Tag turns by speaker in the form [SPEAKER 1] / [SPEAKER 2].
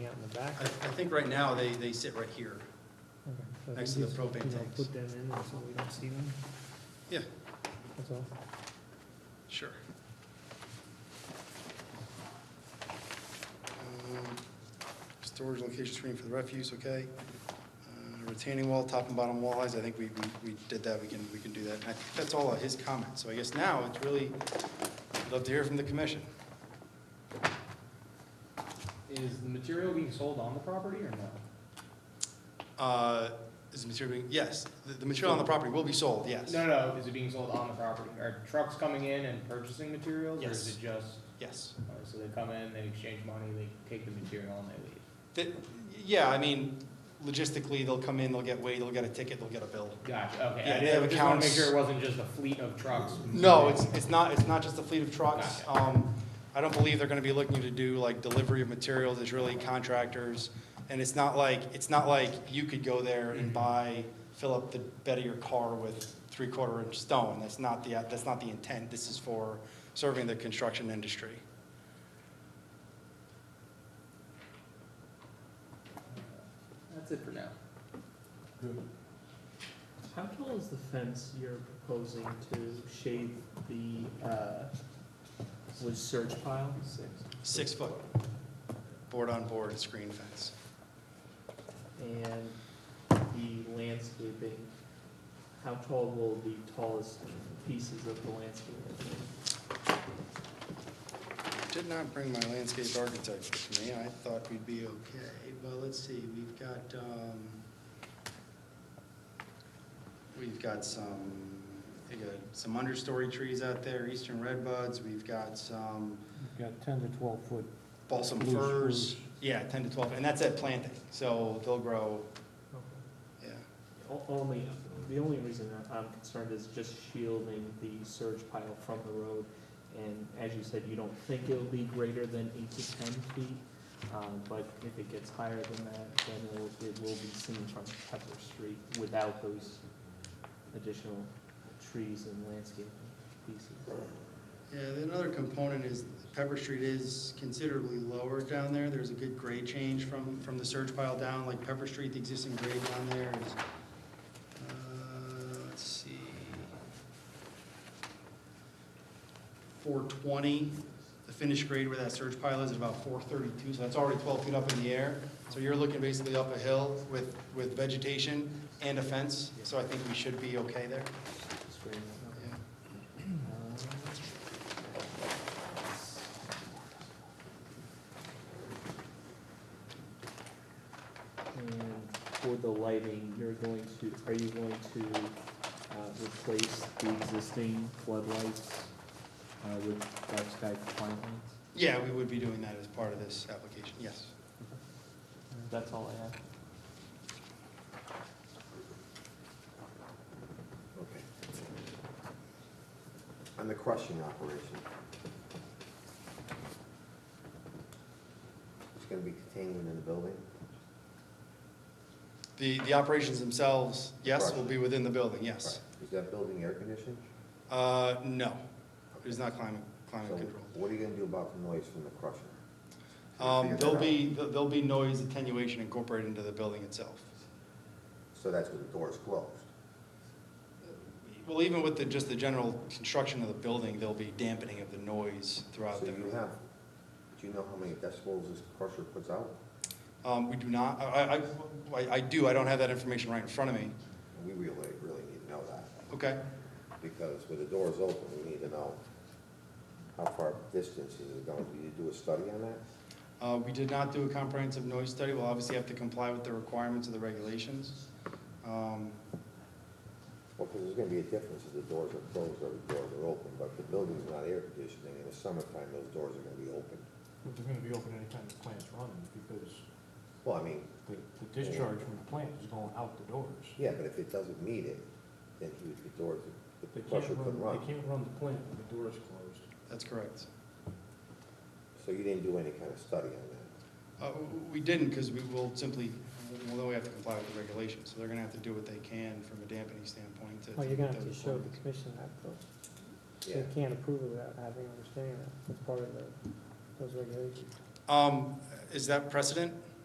[SPEAKER 1] back?
[SPEAKER 2] I, I think right now, they, they sit right here.
[SPEAKER 1] Okay, so I
[SPEAKER 2] next
[SPEAKER 1] think
[SPEAKER 2] to the
[SPEAKER 1] just,
[SPEAKER 2] propane
[SPEAKER 1] you know,
[SPEAKER 2] tanks.
[SPEAKER 1] Put them in and so we don't see them,
[SPEAKER 2] Yeah,
[SPEAKER 1] that's all.
[SPEAKER 2] sure.
[SPEAKER 3] Um, Storage location screen for the refuse, okay. Uh, Retaining wall, top and bottom wall eyes, I think we, we- we did that, we can, we can do that. And I think that's all of his comments, so I guess now it's really, I'd love to hear from the commission.
[SPEAKER 4] Is the material being sold on the property or no?
[SPEAKER 3] Uh, Is the material, being- yes, the- the material on the property will be sold, yes.
[SPEAKER 4] No, no, is it being sold on the property? Are trucks coming in and purchasing materials? Or
[SPEAKER 3] Yes.
[SPEAKER 4] is it just,
[SPEAKER 3] Yes.
[SPEAKER 4] uh, so they come in, they exchange money, they take the material and they leave?
[SPEAKER 3] That- Yeah, I mean, logistically, they'll come in, they'll get weighed, they'll get a ticket, they'll get a bill.
[SPEAKER 4] Gotcha, okay.
[SPEAKER 3] Yeah,
[SPEAKER 4] I
[SPEAKER 3] they have
[SPEAKER 4] just wanna
[SPEAKER 3] accounts.
[SPEAKER 4] Make sure it wasn't just a fleet of trucks.
[SPEAKER 3] No, it's, it's not, it's not just a fleet of trucks.
[SPEAKER 4] Gotcha.
[SPEAKER 3] Um, I don't believe they're gonna be looking to do like delivery of materials, it's really contractors. And it's not like, it's not like you could go there and buy, fill up the bed of your car with three-quarter inch stone. That's not the, that's not the intent, this is for serving the construction industry.
[SPEAKER 4] That's it for now.
[SPEAKER 1] How tall is the fence you're proposing to shade the, uh, was surge pile? Six.
[SPEAKER 3] Six-foot, board-on-board screen fence.
[SPEAKER 1] And the landscaping, how tall will the tallest pieces of the landscaping be?
[SPEAKER 3] Did not bring my landscape architect with me, I thought we'd be okay. Well, let's see, we've got, um, we've got some, we got some understory trees out there, eastern red buds, we've got some
[SPEAKER 5] You've got ten to twelve foot
[SPEAKER 3] balsam
[SPEAKER 5] Loose
[SPEAKER 3] firs.
[SPEAKER 5] spruce.
[SPEAKER 3] Yeah, ten to twelve, and that's at planting, so they'll grow,
[SPEAKER 1] Okay.
[SPEAKER 3] yeah.
[SPEAKER 1] O- Only, the only reason that I'm concerned is just shielding the surge pile from the road. And as you said, you don't think it'll be greater than eight to ten feet, um, but if it gets higher than that, then it'll, it will be seen from Pepper Street without those additional trees and landscaping pieces.
[SPEAKER 3] Yeah, then another component is Pepper Street is considerably lower down there. There's a good grade change from, from the surge pile down, like Pepper Street, the existing grade down there is, uh, let's see. Four twenty, the finished grade where that surge pile is, is about four thirty-two, so that's already twelve feet up in the air. So you're looking basically up a hill with, with vegetation and a fence, so I think we should be okay there.
[SPEAKER 1] Just grade that up.
[SPEAKER 3] Yeah.
[SPEAKER 1] And for the lighting, you're going to, are you going to uh, replace the existing floodlights uh, with dark sky compliant lights?
[SPEAKER 3] Yeah, we would be doing that as part of this application, yes.
[SPEAKER 1] That's all I have.
[SPEAKER 6] Okay. And the crushing operation? It's gonna be contained within the building?
[SPEAKER 3] The, the operations themselves, yes, will be
[SPEAKER 6] Right.
[SPEAKER 3] within the building, yes.
[SPEAKER 6] Is that building air conditioned?
[SPEAKER 3] Uh, no, it is not climate, climate
[SPEAKER 6] So
[SPEAKER 3] controlled.
[SPEAKER 6] What are you gonna do about the noise from the crusher?
[SPEAKER 3] Um,
[SPEAKER 6] Figure that
[SPEAKER 3] there'll
[SPEAKER 6] out.
[SPEAKER 3] be, there'll be noise attenuation incorporated into the building itself.
[SPEAKER 6] So that's when the door is closed?
[SPEAKER 3] Well, even with the, just the general construction of the building, there'll be dampening of the noise throughout
[SPEAKER 6] So
[SPEAKER 3] the.
[SPEAKER 6] you have, do you know how many decibels this crusher puts out?
[SPEAKER 3] Um, we do not, I, I- I, I do, I don't have that information right in front of me.
[SPEAKER 6] We really, really need to know that,
[SPEAKER 3] Okay,
[SPEAKER 6] because when the door is open, we need to know how far distance is it going, do you do a study on that?
[SPEAKER 3] uh, we did not do a comprehensive noise study, we'll obviously have to comply with the requirements of the regulations. Um,
[SPEAKER 6] Well, because there's gonna be a difference if the doors are closed or the doors are open, but if the building's not air conditioning, in the summertime, those doors are gonna be open.
[SPEAKER 5] But they're gonna be open anytime the plant's running, because
[SPEAKER 6] Well, I mean,
[SPEAKER 5] the, the discharge from the plant is going out the doors.
[SPEAKER 6] yeah, but if it doesn't meet it, then he would, the doors, the
[SPEAKER 5] They can't
[SPEAKER 6] crusher
[SPEAKER 5] run,
[SPEAKER 6] couldn't run.
[SPEAKER 5] they can't run the plant when the door is closed.
[SPEAKER 3] That's correct.
[SPEAKER 6] So you didn't do any kind of study on that?
[SPEAKER 3] Uh, We didn't, because we will simply, well, then we have to comply with the regulations, so they're gonna have to do what they can from a dampening standpoint to.
[SPEAKER 7] Well, you're gonna have to
[SPEAKER 3] those
[SPEAKER 7] show the
[SPEAKER 3] requirements.
[SPEAKER 7] commission that
[SPEAKER 6] Yeah,
[SPEAKER 7] they can't approve it without having understanding that, that's part of the, those regulations.
[SPEAKER 3] Um, is that precedent?